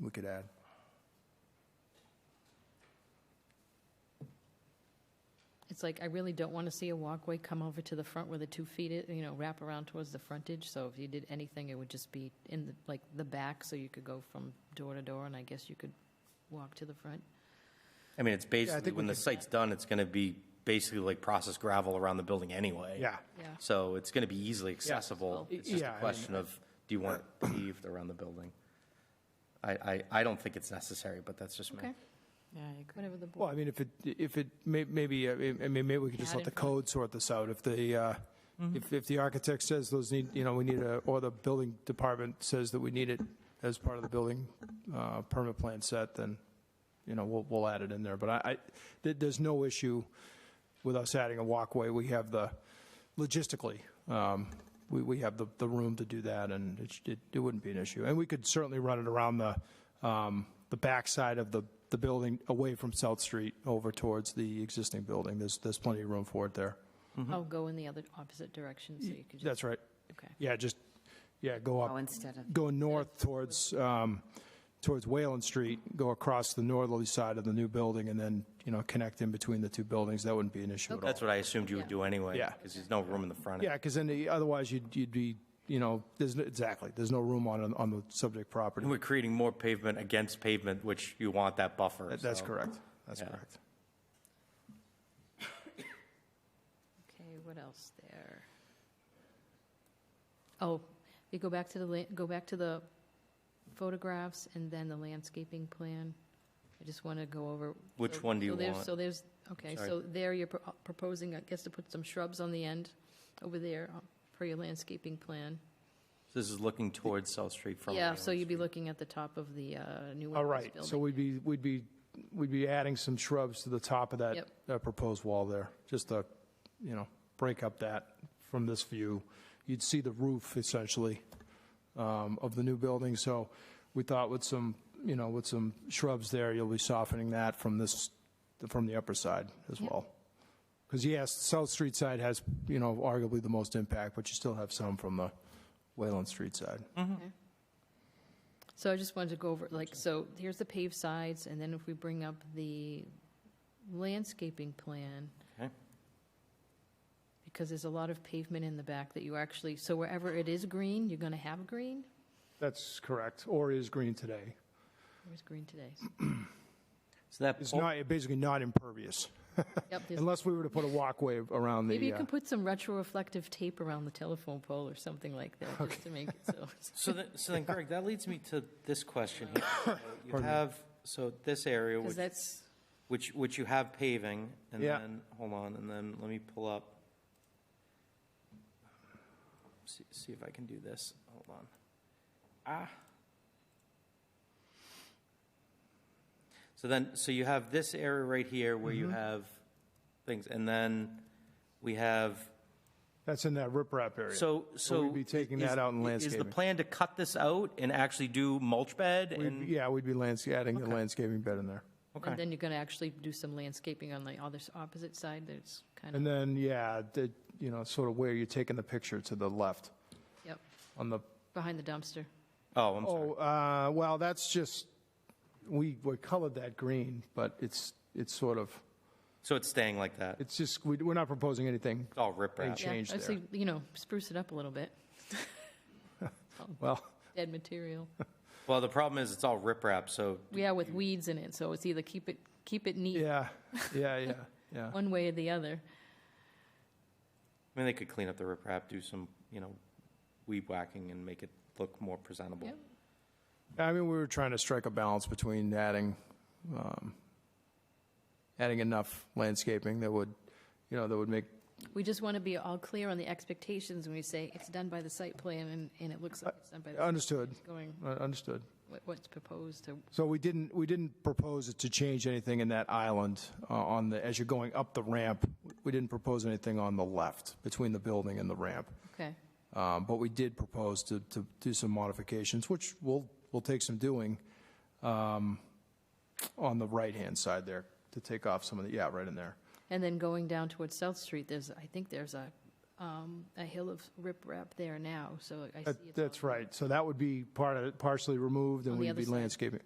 we could add. It's like, I really don't want to see a walkway come over to the front where the two feet, i- you know, wrap around towards the frontage. So if you did anything, it would just be in the, like, the back, so you could go from door to door, and I guess you could walk to the front. I mean, it's basically, think we when the can- site's done, it's going to be basically like processed gravel around the building anyway. Yeah. Yeah. So it's going to be easily accessible. It's just Yeah, I a mean- question of, do you want it paved around the building? I, I, I don't think it's necessary, but that's just me. Okay, Yeah, I agree. whatever the Well, board, I mean, if it, if it, may- maybe, uh, I mean, maybe we could just Add let the in front. code sort this out. If the, uh, if, if the architect says those need, you know, we need a, or the building department says that we need it as part of the building uh, permit plan set, then, you know, we'll, we'll add it in there. But I, I- there- there's no issue with us adding a walkway. We have the, logistically, um, we, we have the, the room to do that, and it, sh- it, it wouldn't be an issue. And we could certainly run it around the, um, the backside of the, the building, away from South Street, over towards the existing building. There's, there's plenty of room for it there. oh, go in the other opposite direction, so you could just, That's right. okay. Yeah, just, yeah, go Oh, up, instead of, go north towards, um, towards Wayland Street, go across the northerly side of the new building, and then, you know, connect in between the two buildings. That wouldn't be an issue at all. That's what I assumed you would do anyway. Yeah. Because there's no room in the front. Yeah, because then the- otherwise you'd, you'd be, you know, there's, no- exactly, there's no room on, on the subject property. And we're creating more pavement against pavement, which you want that buffer. That's so- correct, that's Yeah. correct. Okay, what else there? Oh, you go back to the, la- go back to the photographs and then the landscaping plan. I just want to go over. Which so- one do so you there's- want? So there's, okay, Sorry. so there you're pro- proposing, I guess, to put some shrubs on the end over there uh, for your landscaping plan. This is looking towards South Street from. Yeah, so Wayland you'd be Street. looking at the top of the uh, new. All Empire right, so building. we'd be, we'd be, we'd be adding some shrubs to the top of that, Yep. that proposed wall there, just to, you know, break up that from this view. You'd see the roof essentially um, of the new building, so we thought with some, you know, with some shrubs there, you'll be softening that from this, from the upper side as Yep. well. Because yes, the South Street side has, you know, arguably the most impact, but you still have some from the Wayland Street side. So I just wanted to go over, like, so here's the paved sides, and then if we bring up the landscaping plan. Okay. Because there's a lot of pavement in the back that you actually, so wherever it is green, you're gonna have green? That's correct, or is green today. Where's green today? So that, Oh. It's pole- not, basically not impervious, Yep, there's- unless we were to put a walkway around maybe the, you uh, can put some retroreflective tape around the telephone pole or something like that, just to make it so. So then, so then Greg, that leads me to this question here. So You have, so this area, Because which, that's, which, which you have paving, and Yeah. then, hold on, and then let me pull up. See, see if I can do this, hold on. Ah. So then, so you have this area right here where Mm-hmm. you have things, and then we have that's in that riprap area. so, So so. we'd be taking is- that out in Is the landscaping. plan to cut this out and actually do mulch bed We'd- and? Yeah, we'd be lands, adding the landscaping bed in there. and Okay, then you're gonna actually do some landscaping on the other, s- opposite side, that's kind And of, then, yeah, the, you know, sort of where you're taking the picture to the left yep, on the, behind the dumpster. oh, I'm sorry. oh, uh, well, that's just, we, we colored that green, but it's, it's sort of, So it's staying like that? It's it's just, we, we're not proposing anything. all riprap? Thank you. change yeah, I'd there. say, you know, spruce it up a little bit. Well, Dead material. Well, the problem is it's all riprap, so, We are with weeds in it, so it's either keep it keep it neat yeah, yeah, yeah, yeah. one way or the other. I mean, they could clean up the riprap, do some, you know, weed whacking and make it look more presentable. Yep. I mean, we were trying to strike a balance between adding, um, adding enough landscaping that would, you know, that would make, We just want to be all clear on the expectations when we say it's done by the site plan and, and it looks like it's done by the understood, going uh, understood. what- what's proposed to So we didn't, we didn't propose it to change anything in that island uh, on the, as you're going up the ramp. We didn't propose anything on the left between the building and the ramp. okay. Um, But we did propose to, to do some modifications, which will, will take some doing um, on the right-hand side there to take off some of the, yeah, right in there. And then going down towards South Street, there's I think there's a um, a hill of riprap there now, so I see That- it's all That's right. So that would be part of, partially removed, and On the we'd other be side. landscaping.